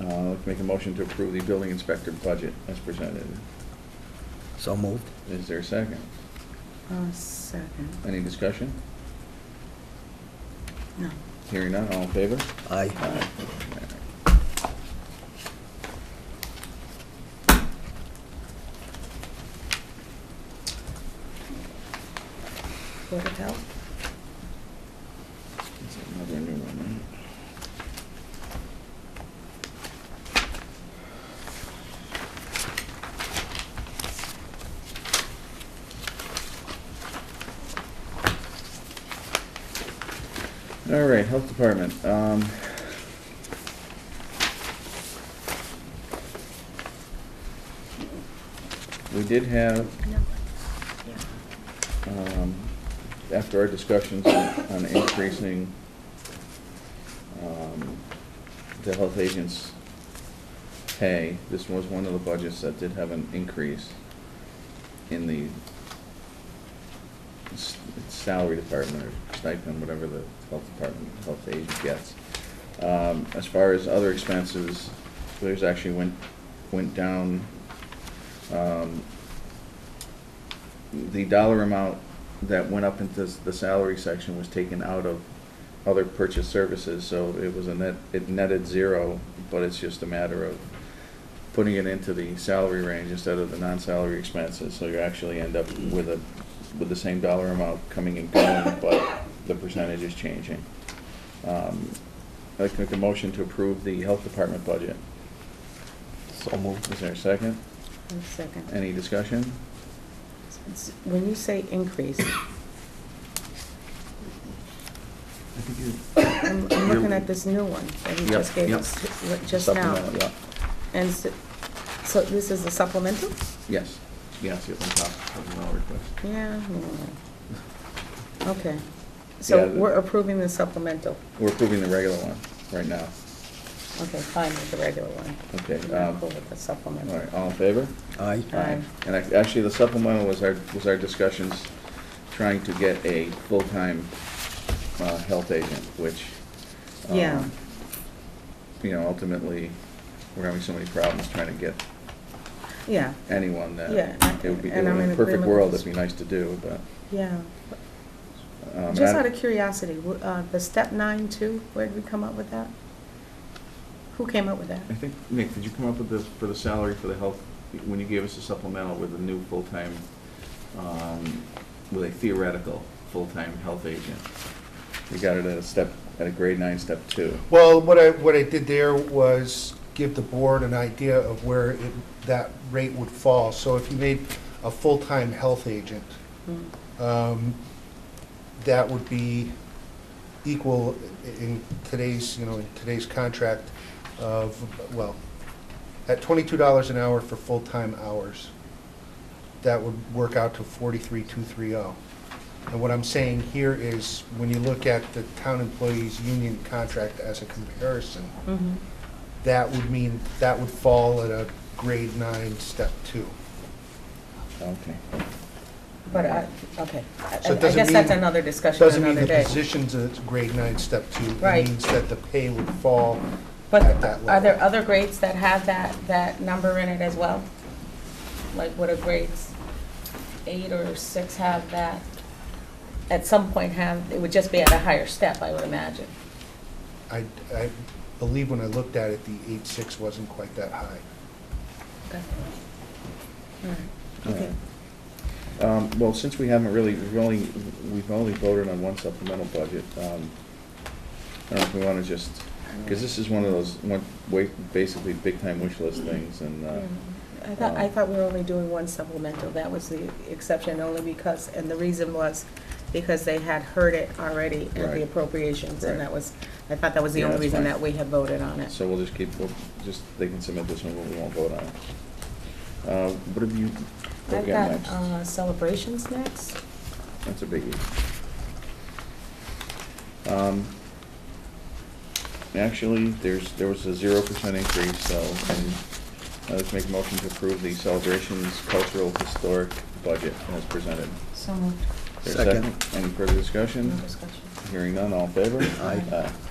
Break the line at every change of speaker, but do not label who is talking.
Uh, Make a motion to approve the building inspector budget as presented.
So moved.
Is there a second?
Uh, second,
Any discussion?
no.
Hearing none, all in favor?
Aye.
Aye.
Board of Health?
That's Another new one, right? All right, Health Department. um, We did have
No. Yeah.
um, after our discussions on on increasing um, the health agents' pay, this was one of the budgets that did have an increase in the s- salary department or stipend, whatever the health department, health agent gets. Um, As far as other expenses, there's actually went, went down um, the dollar amount that went up into the salary section was taken out of other purchase services, so it was a net, it netted zero, but it's just a matter of putting it into the salary range instead of the non-salary expenses, so you actually end up with a, with the same dollar amount coming and going, but the percentage is changing. Um, I'd like to make a motion to approve the health department budget.
So moved.
Is there a second?
One second.
Any discussion?
It's- When you say increase,
I think you.
I'm, I'm looking at this new one that you
Yep,
just gave
yep.
us li- just now.
Supplemental, yeah.
And so, so this is a supplemental?
Yes, yes, it's on top of the law request.
Yeah. yeah. Okay. So
Yeah, the-
we're approving the supplemental.
We're approving the regular one right now.
Okay, fine with the regular one.
Okay,
We're not
um,
cool with the supplemental.
All right, all in favor?
Aye.
Aye.
And ac- actually, the supplemental was our, was our discussions trying to get a full-time uh, health agent, which. um,
Yeah.
You know, ultimately, we're having so many problems trying to get
Yeah,
anyone that.
Yeah,
It would be, it
and
would
I'm
in a
in
perfect
agreement
world,
with-
it'd be nice to do, but.
yeah.
um, and
Just
I-
out of curiosity, w- uh, the step nine too, where did we come up with that? Who came up with that?
I think, Nick, did you come up with the, for the salary for the health, when you gave us a supplemental with a new full-time, um, with a theoretical full-time health agent? We got it at a step, at a grade nine, step two.
Well, what I, what I did there was give the board an idea of where it- that rate would fall. So if you made a full-time health agent,
Hmm.
um, that would be equal i- in today's, you know, in today's contract of, well, at twenty-two dollars an hour for full-time hours, that would work out to forty-three, two, three, oh. And what I'm saying here is, when you look at the town employees' union contract as a comparison,
Mhm.
that would mean, that would fall at a grade nine, step two.
Okay.
But I, okay, I
So
I
it doesn't
guess that's
mean-
another discussion
Doesn't mean
another
the
day.
position's a grade nine, step two.
Right.
It means that the pay would fall
But
at that level.
are there other grades that have that, that number in it as well? Like what do grades eight or six have that? At some point have, it would just be at a higher step, I would imagine.
I, I believe when I looked at it, the eight-six wasn't quite that high.
Okay. All right. Okay.
Um, Well, since we haven't really, we've only, we've only voted on one supplemental budget, um, I don't know if we want to just, because this is one of those, one, wa- basically big-time wish list things, and, uh,
I thought,
Um,
I thought we were only doing one supplemental, that was the exception, only because, and the reason was because they had heard it already at
Right.
the appropriations,
Right.
and that was, I thought that was the
Yeah,
only
that's
reason
fine.
that we had voted on it.
So we'll just keep, we'll just, they can submit this one, but we won't vote on it. Uh, What have you, what have
I've
you got
got
next?
uh, celebrations next.
That's a biggie. Um, Actually, there's, there was a zero percent increase, so um, I'd like to make a motion to approve the celebrations cultural historic budget as presented.
So moved.
Is there a
Second.
Any further discussion?
No discussion.
Hearing none, all in favor?
Aye.
Aye.